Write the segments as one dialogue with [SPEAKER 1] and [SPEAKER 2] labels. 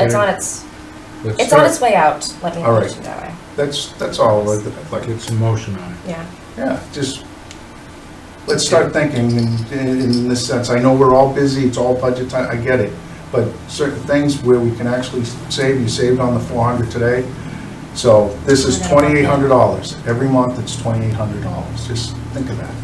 [SPEAKER 1] It's on
[SPEAKER 2] And
[SPEAKER 1] its,
[SPEAKER 2] let's
[SPEAKER 1] it's on
[SPEAKER 2] start.
[SPEAKER 1] its way out, let me
[SPEAKER 2] All right.
[SPEAKER 1] mention it that way,
[SPEAKER 3] That's, that's all, like, like,
[SPEAKER 2] Get some motion on it.
[SPEAKER 1] yeah.
[SPEAKER 3] yeah, just, let's start thinking in, in this sense. I know we're all busy, it's all budget time, I get it. But certain things where we can actually save, you saved on the four hundred today. So this is twenty-eight hundred dollars. Every month, it's twenty-eight hundred dollars. Just think of that.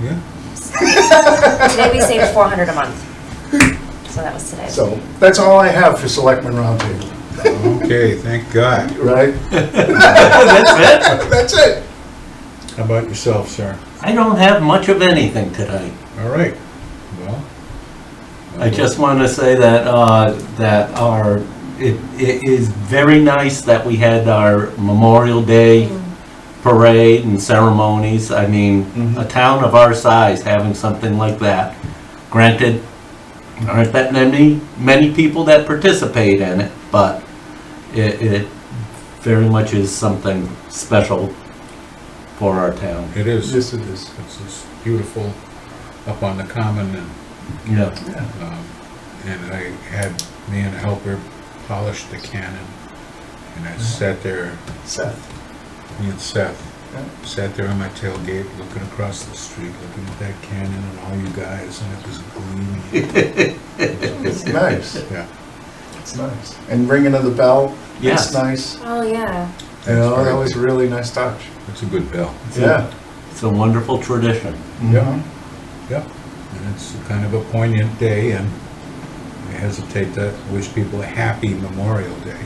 [SPEAKER 2] Yeah?
[SPEAKER 1] Today we saved four hundred a month, so that was today.
[SPEAKER 3] So that's all I have for Selectmen Roundtable,
[SPEAKER 2] Okay, thank God.
[SPEAKER 3] right?
[SPEAKER 4] That's it.
[SPEAKER 3] That's it.
[SPEAKER 2] How about yourself, sir?
[SPEAKER 4] I don't have much of anything tonight.
[SPEAKER 2] All right, well.
[SPEAKER 4] I just want to say that, uh, that our, it, it is very nice that we had our Memorial Day
[SPEAKER 3] Mm-hmm.
[SPEAKER 4] parade and ceremonies. I mean, a town of our size having something like that. Granted, aren't that many, many people that participate in it, but it, it very much is something special for our town.
[SPEAKER 2] It is.
[SPEAKER 3] Yes, it is.
[SPEAKER 2] It's just beautiful up on the common and,
[SPEAKER 4] Yeah.
[SPEAKER 2] um, and I had me and a helper polish the cannon. And
[SPEAKER 4] Mm-hmm.
[SPEAKER 2] I sat there,
[SPEAKER 3] Seth.
[SPEAKER 2] me and Seth,
[SPEAKER 3] Yeah.
[SPEAKER 2] sat there on my tailgate, looking across the street, looking at that cannon and all you guys, and it was gleaming.
[SPEAKER 3] It's nice.
[SPEAKER 2] Yeah.
[SPEAKER 3] It's nice. And ringing of the bell.
[SPEAKER 4] Yes.
[SPEAKER 3] It's nice.
[SPEAKER 1] Oh, yeah,
[SPEAKER 3] You know, that was a really nice touch.
[SPEAKER 2] It's a good bell.
[SPEAKER 3] Yeah.
[SPEAKER 4] It's a wonderful tradition.
[SPEAKER 2] Yeah. Yeah, and it's kind of a poignant day, and I hesitate to wish people a happy Memorial Day.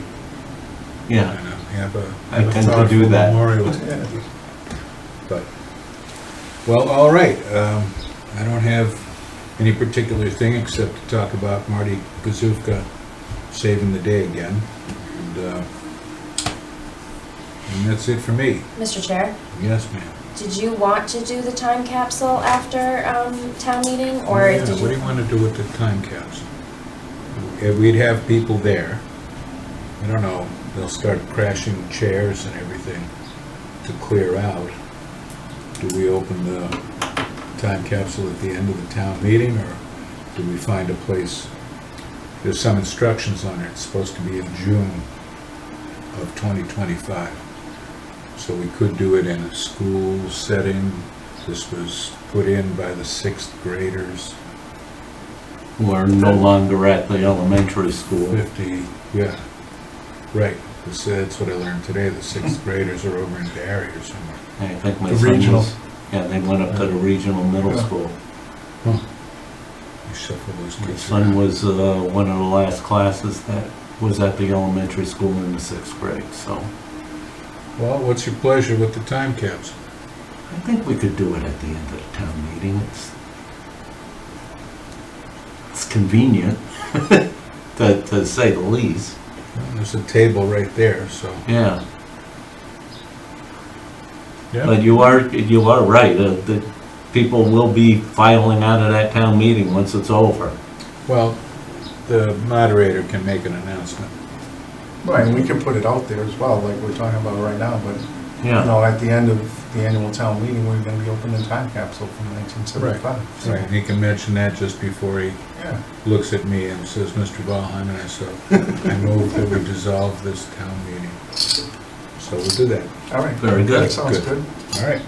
[SPEAKER 4] Yeah.
[SPEAKER 2] And, uh, Have a.
[SPEAKER 4] I
[SPEAKER 2] have a
[SPEAKER 4] tend to
[SPEAKER 2] thoughtful
[SPEAKER 4] do that.
[SPEAKER 2] Memorial Day. But, well, all right, um, I don't have any particular thing except to talk about Marty Gazufka saving the day again. And, uh, and that's it for me.
[SPEAKER 1] Mr. Chair,
[SPEAKER 2] Yes, ma'am.
[SPEAKER 1] did you want to do the time capsule after, um, town meeting, or
[SPEAKER 2] Yeah,
[SPEAKER 1] did you?
[SPEAKER 2] What do you want to do with the time capsule? If we'd have people there, I don't know, they'll start crashing chairs and everything to clear out. Do we open the time capsule at the end of the town meeting, or do we find a place? There's some instructions on it, it's supposed to be in June of 2025. So we could do it in a school setting. This was put in by the sixth graders,
[SPEAKER 4] who are no longer at the elementary school.
[SPEAKER 2] 50, yeah, right. This- That's what I learned today, the sixth graders are over in Barry or somewhere.
[SPEAKER 4] I think my
[SPEAKER 3] The
[SPEAKER 4] son
[SPEAKER 3] regional.
[SPEAKER 4] was, yeah, they went up to the regional middle
[SPEAKER 3] Yeah.
[SPEAKER 4] school.
[SPEAKER 2] You shuffle those
[SPEAKER 4] My
[SPEAKER 2] kids
[SPEAKER 4] son
[SPEAKER 2] around.
[SPEAKER 4] was, uh, one of the last classes that was at the elementary school in the sixth grade, so
[SPEAKER 2] Well, what's your pleasure with the time capsule?
[SPEAKER 4] I think we could do it at the end of the town meeting. It's, it's convenient, to, to say the least,
[SPEAKER 2] Well, There's a table right there, so.
[SPEAKER 4] yeah.
[SPEAKER 2] Yeah.
[SPEAKER 4] But you are, you are right, uh, the people will be filing out of that town meeting once it's over.
[SPEAKER 2] Well, the moderator can make an announcement.
[SPEAKER 3] Right, and we can put it out there as well, like we're talking about right now, but, you
[SPEAKER 4] Yeah,
[SPEAKER 3] know, at the end of the annual town meeting, we're gonna be opening the time capsule from nineteen seventy-five.
[SPEAKER 2] Right, and he can mention that just before he
[SPEAKER 3] Yeah,
[SPEAKER 2] looks at me and says, Mr. Valheim, and I so, I move that we dissolve this town meeting. So we'll do that.
[SPEAKER 3] all right.
[SPEAKER 4] Very good.
[SPEAKER 3] That sounds
[SPEAKER 2] Good.
[SPEAKER 3] good.
[SPEAKER 2] All right.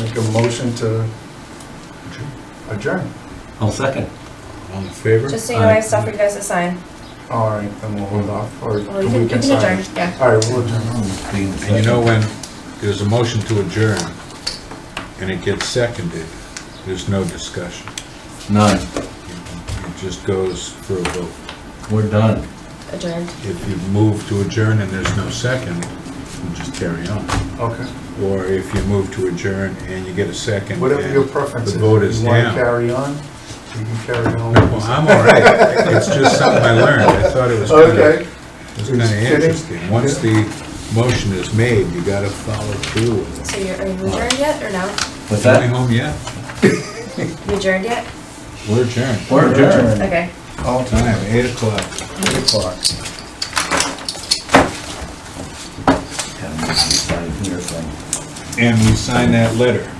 [SPEAKER 3] Make a motion to adjourn.
[SPEAKER 4] I'll second.
[SPEAKER 2] All in favor?
[SPEAKER 1] Just so you know, I have stuff for you guys to sign.
[SPEAKER 3] All right, then we'll hold off, or
[SPEAKER 1] Well, you can,
[SPEAKER 3] we
[SPEAKER 1] you
[SPEAKER 3] can
[SPEAKER 1] can
[SPEAKER 3] sign.
[SPEAKER 1] adjourn, yeah.
[SPEAKER 3] All right, we'll adjourn.
[SPEAKER 2] And you know when there's a motion to adjourn and it gets seconded, there's no discussion.
[SPEAKER 4] None,
[SPEAKER 2] It just goes for a vote.
[SPEAKER 4] we're done.
[SPEAKER 1] Adjourned.
[SPEAKER 2] If you move to adjourn and there's no second, you just carry on.
[SPEAKER 3] Okay,
[SPEAKER 2] Or if you move to adjourn and you get a second.
[SPEAKER 3] whatever
[SPEAKER 2] and
[SPEAKER 3] your preference is.
[SPEAKER 2] The vote is
[SPEAKER 3] You wanna
[SPEAKER 2] down.
[SPEAKER 3] carry on, you can carry
[SPEAKER 2] Well,
[SPEAKER 3] on.
[SPEAKER 2] I'm all right. It's just something I learned. I thought it was kind of,
[SPEAKER 3] Okay,
[SPEAKER 2] it was kind of interesting. Once the motion is made, you gotta follow through with it.
[SPEAKER 1] So you're, are you adjourned yet, or no?
[SPEAKER 4] What's
[SPEAKER 2] Am I home yet?
[SPEAKER 1] You adjourned yet?
[SPEAKER 2] We're adjourned.
[SPEAKER 4] We're adjourned.
[SPEAKER 1] Okay.
[SPEAKER 3] all time,
[SPEAKER 2] Time, eight o'clock.
[SPEAKER 3] eight o'clock.
[SPEAKER 4] Haven't decided your thing.
[SPEAKER 2] And we sign that letter.